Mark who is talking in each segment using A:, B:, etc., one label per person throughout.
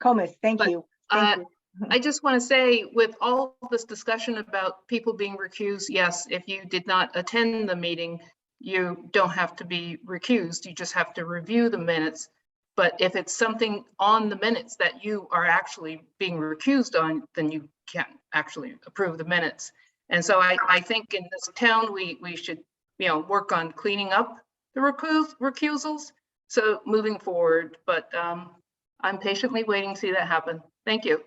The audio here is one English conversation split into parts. A: Comus, thank
B: But,
A: you. Thank
B: uh,
A: you.
B: I just want to say, with all this discussion about people being recused, yes, if you did not attend the meeting, you don't have to be recused. You just have to review the minutes. But if it's something on the minutes that you are actually being recused on, then you can't actually approve the minutes. And so I, I think in this town, we, we should, you know, work on cleaning up the recus- recusals. So moving forward, but um, I'm patiently waiting to see that happen. Thank you.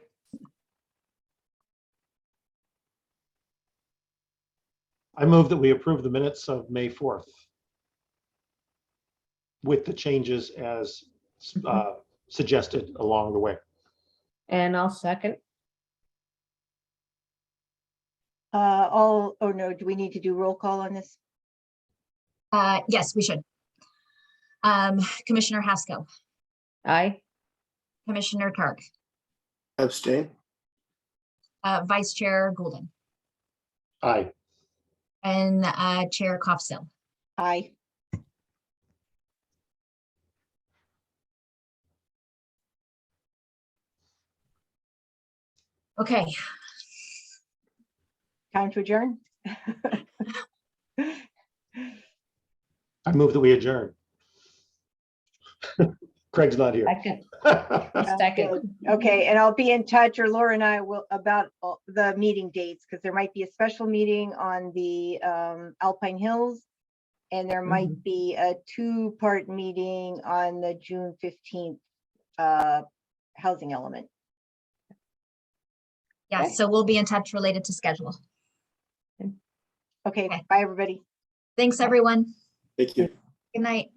C: I move that we approve the minutes of May 4th with the changes as uh, suggested along the way.
D: And I'll second.
A: Uh, all, oh no, do we need to do roll call on this?
E: Uh, yes, we should. Um, Commissioner Haskell,
D: Aye.
E: Commissioner Targ,
F: Abstain.
E: uh, Vice Chair Golden,
C: Aye.
E: and, uh, Chair Koffstil.
A: Aye.
E: Okay,
A: Time to adjourn?
C: I move that we adjourn. Craig's not here.
D: Second. Second.
A: Okay, and I'll be in touch, or Laura and I will, about all- the meeting dates, because there might be a special meeting on the um, Alpine Hills. And there might be a two-part meeting on the June fifteenth uh, housing element.
E: yeah, so we'll be in touch related to schedule.
A: Okay,
E: Okay.
A: bye, everybody.
E: Thanks, everyone.
F: Thank you.
E: Good night.